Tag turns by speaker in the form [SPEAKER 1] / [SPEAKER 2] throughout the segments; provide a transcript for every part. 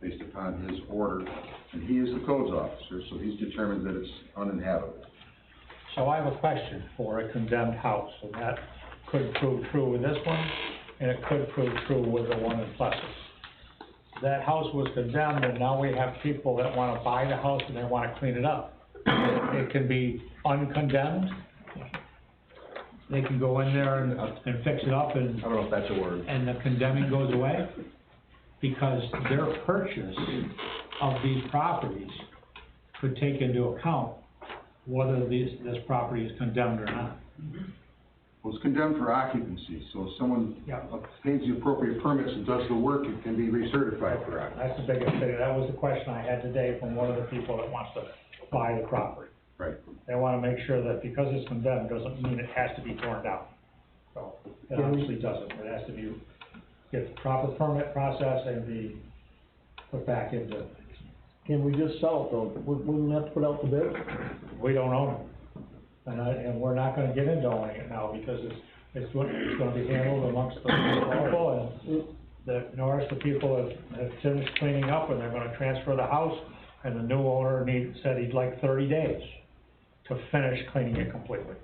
[SPEAKER 1] based upon his order, and he is the codes officer, so he's determined that it's uninhabitable.
[SPEAKER 2] So I have a question for a condemned house, and that could prove true with this one, and it could prove true with the one in Plessis. That house was condemned, and now we have people that wanna buy the house and they wanna clean it up. It can be uncondemned. They can go in there and, uh, and fix it up and
[SPEAKER 3] I don't know if that's a word.
[SPEAKER 2] and the condemning goes away? Because their purchase of these properties could take into account whether these, this property is condemned or not.
[SPEAKER 1] Well, it's condemned for occupancy, so if someone
[SPEAKER 2] Yeah.
[SPEAKER 1] obtains the appropriate permits and does the work, it can be recertified for occupancy.
[SPEAKER 2] That's the biggest thing, that was the question I had today from one of the people that wants to buy the property.
[SPEAKER 1] Right.
[SPEAKER 2] They wanna make sure that because it's condemned, doesn't mean it has to be torn down. So, it obviously doesn't, it has to be, get the proper permit process and be put back into,
[SPEAKER 4] Can we just sell it though? Wou- Wouldn't we have to put out the bid?
[SPEAKER 2] we don't own it. And I, and we're not gonna get into owning it now, because it's, it's, what- it's gonna be handled amongst the people, and the, notice the people have, have finished cleaning up, and they're gonna transfer the house, and the new owner need, said he'd like thirty days to finish cleaning it completely.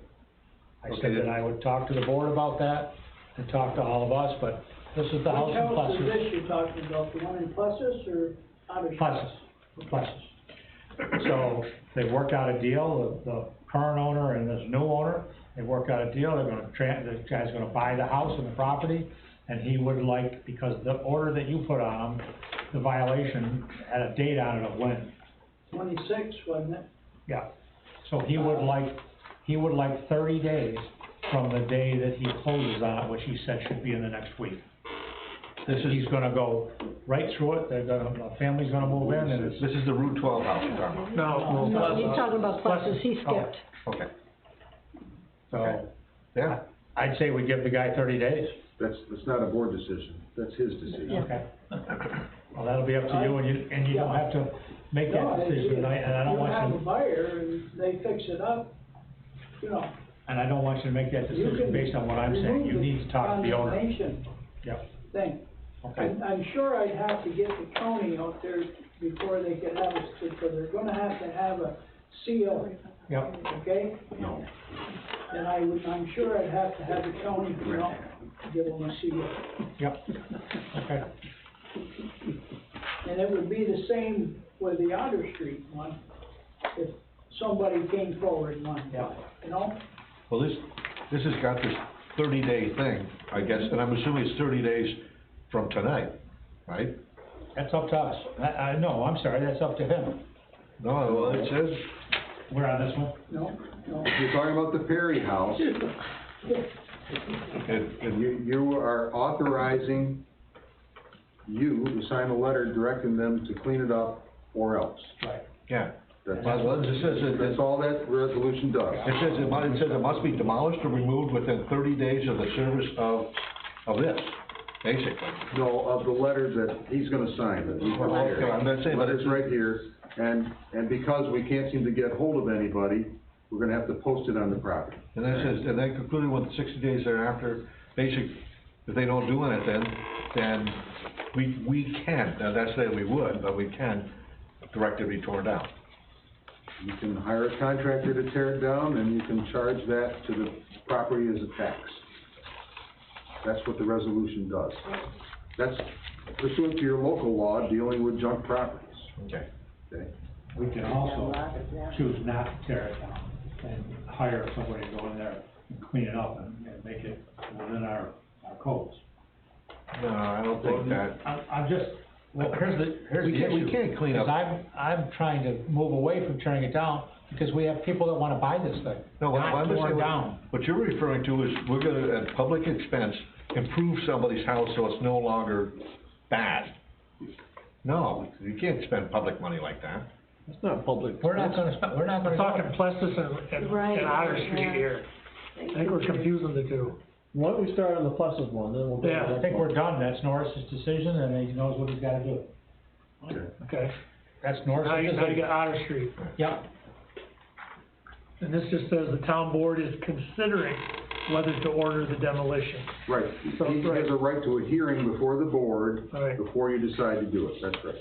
[SPEAKER 2] I said
[SPEAKER 1] Okay.
[SPEAKER 2] that I would talk to the board about that, and talk to all of us, but this is the house
[SPEAKER 5] Which
[SPEAKER 2] in
[SPEAKER 5] house is
[SPEAKER 2] Plessis,
[SPEAKER 5] this you're talking about, the one in Plessis or out of?
[SPEAKER 2] Plessis, Plessis. So they worked out a deal, the, the current owner and this new owner, they worked out a deal, they're gonna tran, this guy's gonna buy the house and the property, and he would like, because the order that you put on him, the violation had a date on it of when,
[SPEAKER 5] Twenty-six, wasn't it?
[SPEAKER 2] yeah. So he would like, he would like thirty days from the day that he closes on it, which he said should be in the next week. This is, he's gonna go right through it, they're gonna, the family's gonna move in, and it's
[SPEAKER 3] This is the Route twelve house you're talking about.
[SPEAKER 2] No, oh,
[SPEAKER 6] No, he's talking about pluses, he skipped.
[SPEAKER 3] Okay,
[SPEAKER 2] So,
[SPEAKER 3] yeah.
[SPEAKER 2] I'd say we give the guy thirty days.
[SPEAKER 1] That's, that's not a board decision, that's his decision.
[SPEAKER 2] Okay. Well, that'll be up to you, and you, and you don't have to make
[SPEAKER 5] No,
[SPEAKER 2] that
[SPEAKER 5] it-
[SPEAKER 2] decision, and I, and I don't
[SPEAKER 5] You have
[SPEAKER 2] want
[SPEAKER 5] a
[SPEAKER 2] you,
[SPEAKER 5] buyer and they fix it up, you know.
[SPEAKER 2] and I don't want you to make that
[SPEAKER 5] you
[SPEAKER 2] decision
[SPEAKER 5] can
[SPEAKER 2] based on what I'm saying, you
[SPEAKER 5] remove
[SPEAKER 2] need to talk to the owner.
[SPEAKER 5] condemnation
[SPEAKER 2] Yep,
[SPEAKER 5] Thing.
[SPEAKER 2] okay,
[SPEAKER 5] I'm, I'm sure I'd have to get the county out there before they could have us, because they're gonna have to have a seal,
[SPEAKER 2] yep,
[SPEAKER 5] okay?
[SPEAKER 1] No.
[SPEAKER 5] And I would, I'm sure I'd have to have the county, you know, give them a seal.
[SPEAKER 2] yep, okay.
[SPEAKER 5] And it would be the same with the Otter Street one, if somebody came forward and wanted,
[SPEAKER 2] Yeah.
[SPEAKER 5] you know?
[SPEAKER 3] Well, this, this has got this thirty day thing, I guess, and I'm assuming it's thirty days from tonight, right?
[SPEAKER 2] That's up to us, I, I, no, I'm sorry, that's up to him.
[SPEAKER 3] No, well, it says,
[SPEAKER 2] We're on this one?
[SPEAKER 5] No, no.
[SPEAKER 1] If you're talking about the Perry House,
[SPEAKER 3] it, it,
[SPEAKER 1] you, you are authorizing you to sign a letter directing them to clean it up or else.
[SPEAKER 2] Right.
[SPEAKER 3] yeah.
[SPEAKER 1] That's,
[SPEAKER 3] Well, it just says, it,
[SPEAKER 1] that's
[SPEAKER 3] it
[SPEAKER 1] all that resolution does.
[SPEAKER 3] it says, it mu- it says it must be demolished or removed within thirty days of the service of, of this, basically.
[SPEAKER 1] No, of the letter that he's gonna sign, that he's prepared.
[SPEAKER 3] Okay, I'm not saying, but
[SPEAKER 1] Letter's
[SPEAKER 3] it's-
[SPEAKER 1] right here, and, and because we can't seem to get hold of anybody, we're gonna have to post it on the property.
[SPEAKER 3] And then it says, and then concluding with sixty days thereafter, basic, if they don't do anything, then we, we can, now that's saying we would, but we can direct it to be torn down.
[SPEAKER 1] You can hire a contractor to tear it down, and you can charge that to the property as a tax. That's what the resolution does. That's pursuant to your local law dealing with junk properties,
[SPEAKER 3] Okay.
[SPEAKER 1] okay?
[SPEAKER 2] We can also choose not to tear it down and hire somebody to go in there and clean it up and, and make it within our, our codes.
[SPEAKER 3] No, I don't think that,
[SPEAKER 2] I'm, I'm just, well, here's the, here's
[SPEAKER 3] We
[SPEAKER 2] the
[SPEAKER 3] can't- we
[SPEAKER 2] issue.
[SPEAKER 3] can't clean up-
[SPEAKER 2] Because I'm, I'm trying to move away from tearing it down, because we have people that wanna buy this thing,
[SPEAKER 3] no, what
[SPEAKER 2] not
[SPEAKER 3] I'm saying,
[SPEAKER 2] torn
[SPEAKER 3] what-
[SPEAKER 2] down.
[SPEAKER 3] what you're referring to is, we're gonna, at public expense, improve somebody's house so it's no longer bad. No, you can't spend public money like that.
[SPEAKER 4] It's not public.
[SPEAKER 2] We're not gonna, spend- we're not gonna.
[SPEAKER 7] We're talking Plessis and, and
[SPEAKER 6] Right,
[SPEAKER 7] and Otter
[SPEAKER 6] yeah.
[SPEAKER 7] Street here. I think we're confusing the two.
[SPEAKER 4] Why don't we start on the pluses one, then we'll go to
[SPEAKER 7] Yeah, I
[SPEAKER 4] that
[SPEAKER 2] I think
[SPEAKER 4] one.
[SPEAKER 2] we're done, that's Norris's decision, and he knows what he's gotta do.
[SPEAKER 7] Okay.
[SPEAKER 2] That's
[SPEAKER 7] Now
[SPEAKER 2] Norris's
[SPEAKER 7] you, now you
[SPEAKER 2] decision.
[SPEAKER 7] got Otter Street.
[SPEAKER 2] Yep,
[SPEAKER 7] And this just says the town board is considering whether to order the demolition.
[SPEAKER 1] Right, he has a right to a hearing before the board,
[SPEAKER 7] All right.
[SPEAKER 1] before you decide to do it, that's right.